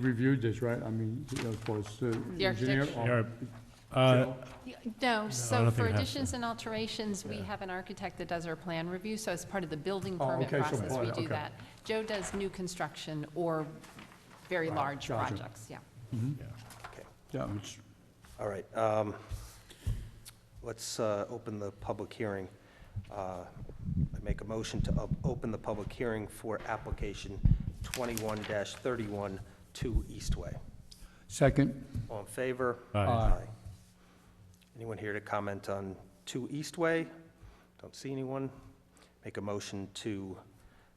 reviewed this, right? I mean, of course, the The engineer. architect. or- Uh, No, so for don't think it has to. additions and alterations, we have an architect that does our plan review, so as part of the building Oh, permit okay, so process, part- we do okay. that. Joe does new construction or very large gotcha. projects, yeah. Yeah, it's- All right, um, let's uh, open the public hearing. Uh, I make a motion to op- open the public hearing for application 21-31 to Eastway. Second, All in favor? Aye. Aye. Anyone here to comment on 2 Eastway? Don't see anyone. Make a motion to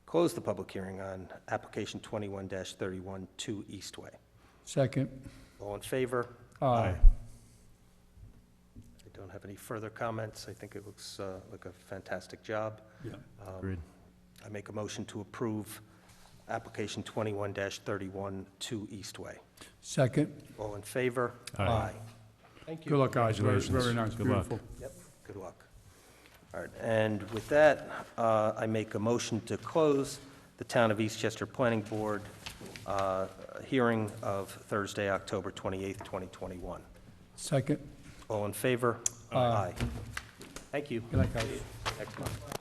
close the public hearing on application 21-31 to Eastway. second. All in favor? Aye. I don't have any further comments. I think it looks uh, like a fantastic job. Yeah. Um, Agreed. I make a motion to approve application 21-31 to Eastway. Second. All in favor? Aye. Thank you. Good luck, guys. Very- Congratulations. Very nice, Good luck. beautiful. Yep, good luck. All right, and with that, uh, I make a motion to close the Town of Eastchester Planning Board uh, hearing of Thursday, October 28th, 2021. Second. All in favor? Aye. Thank you. Good luck, guys. Next month.